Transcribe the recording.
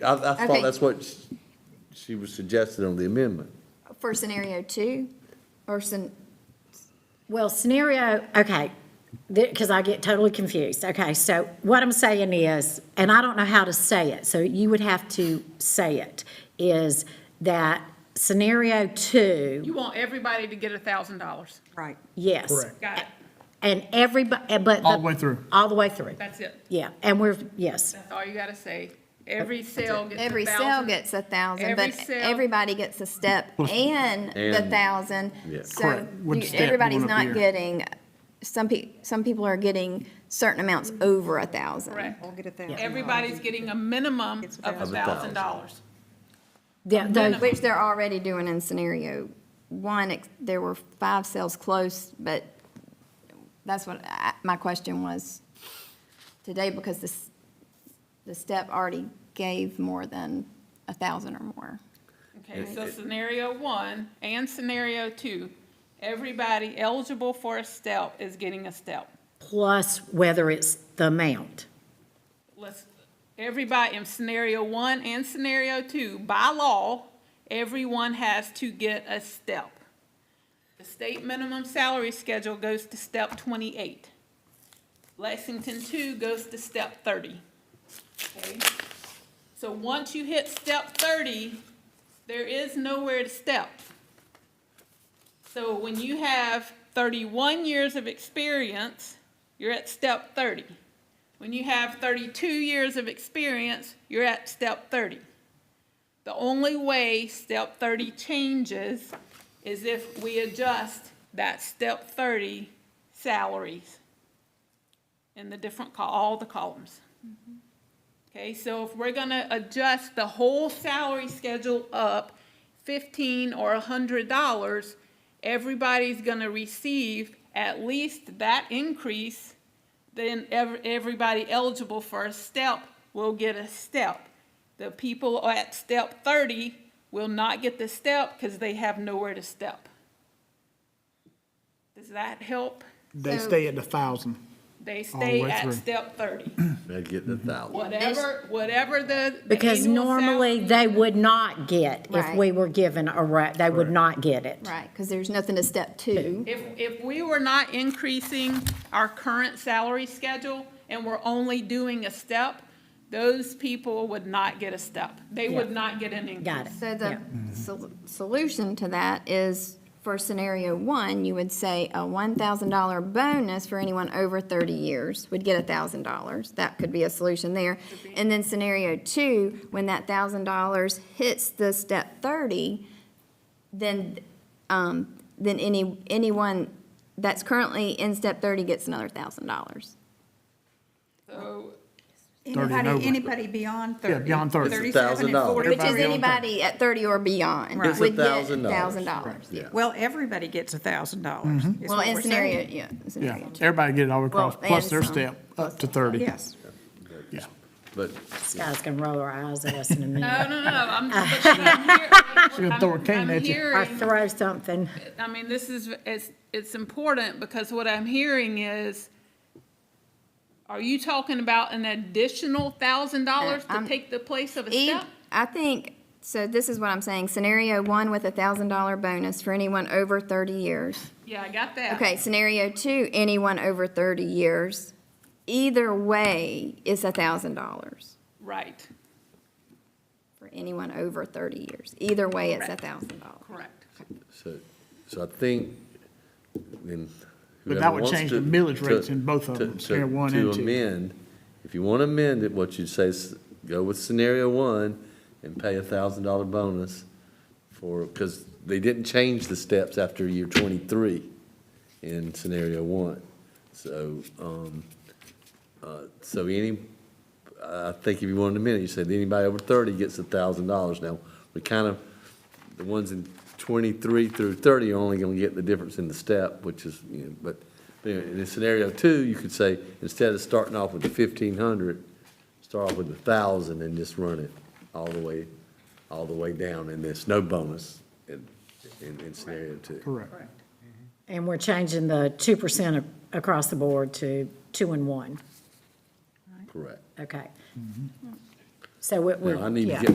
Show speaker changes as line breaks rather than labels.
I, I
Okay.
thought that's what sh- she was suggesting on the amendment.
for scenario two, or sen,
Well, scenario, okay, because I get totally confused. Okay, so what I'm saying is, and I don't know how to say it, so you would have to say it, is that scenario two,
You want everybody to get a thousand dollars.
Right.
yes.
Correct.
Got it.
And everybody, but.
All the way through.
All the way through.
That's it.
Yeah, and we're, yes,
That's all you gotta say. Every cell gets a thousand.
every cell gets a thousand,
Every
but
cell-
everybody gets a step and the
And-
thousand.
Yeah.
So
Correct. Which
you-
step you
everybody's
want up
not
here?
getting, some pe, some people are getting certain amounts over a thousand.
Correct.
I'll get it there.
Everybody's getting a minimum
It's
of a
thousand.
thousand dollars.
yeah, those-
Which they're already doing in scenario one, ex- there were five cells close, but that's what I, my question was today, because this, the step already gave more than a thousand or more.
Okay, so scenario one and scenario two, everybody eligible for a step is getting a step.
plus whether it's the amount.
Let's, everybody in scenario one and scenario two, by law, everyone has to get a step. The state minimum salary schedule goes to step twenty-eight. Lexington two goes to step thirty. Okay? So once you hit step thirty, there is nowhere to step. So when you have thirty-one years of experience, you're at step thirty. When you have 32 years of experience, you're at step 30. The only way step 30 changes is if we adjust that step 30 salaries in the different, col- all the columns. Okay, so if we're gonna adjust the whole salary schedule up 15 or 100 dollars, everybody's gonna receive at least that increase then ev- everybody eligible for a step will get a step. The people at step thirty will not get the step because they have nowhere to step. Does that help?
They
So-
stay at the thousand.
They
All the
stay
way
at
through.
step thirty.
They're getting a
Mm-hmm.
thousand.
Whatever, whatever the. the
Because
annual
normally
salary-
they would not get, if
Right.
we were given a, ra- they would not get it.
Right, because there's nothing to step two.
If, if we were not increasing our current salary schedule and we're only doing a step, those people would not get a step. They would
Yeah.
not get an increase.
Got it.
So
Yeah.
the sol- solution to that is for scenario one, you would say a one thousand dollar bonus for anyone over thirty years would get a thousand dollars. That could be a solution there. And then scenario two, when that thousand dollars hits the step thirty, then, um, then any, anyone that's currently in step thirty gets another thousand dollars.
So
and over.
Anybody, anybody beyond thirty.
Yeah, beyond 30. It's a
37 and
$1,000.
40.
Which is
Everybody on top.
anybody at thirty or beyond
Right. It's
would get
$1,000.
thousand dollars.
Yeah.
Well, everybody gets a thousand dollars.
Mm-hmm.
is
Well,
what
in
we're
scenario,
saying.
yeah,
Yeah,
scenario two.
everybody get it all across,
Well,
plus
and
their
some.
step, up to thirty.
Yes.
Yeah.
But
This guy's gonna roll our eyes at us in a minute
No, no, no, I'm, but I'm hear- I'm-
gonna throw a cane
I'm
at you.
or
hearing-
throw something.
I mean, this is, it's, it's important because what I'm hearing is, are you talking about an additional thousand dollars
No,
to
I'm- E
take the place of a
Eve,
step?
I think, so this is what I'm saying, scenario one with a thousand dollar bonus for anyone over thirty years.
Yeah, I got that.
Okay, scenario two, anyone over thirty years, either way, it's a thousand dollars
Right,
for anyone over thirty years. Either way, it's a
Correct.
thousand dollars.
correct.
So, so I think, then.
But that
whoever
would
wants
change the
to-
millage
to-
rates in both of
to-
them,
to-
scenario one and
To
two.
amend, if you want to amend it, what you'd say is, go with scenario one and pay a thousand dollar bonus for, because they didn't change the steps after year twenty-three in scenario one. So, um, uh, so any, I think if you wanted to amend it, you said anybody over thirty gets a thousand dollars. Now, we kind of, the ones in twenty-three through thirty are only gonna get the difference in the step, which is, you know, but, but anyway, in scenario two, you could say, instead of starting off with the fifteen hundred, start off with the thousand and just run it all the way, all the way down, and there's no bonus in, in, in scenario two.
Correct.
And we're changing the two percent across the board to two and one,
Correct.
okay. So it
No, Mm-hmm. I
would,
need to
yeah.
get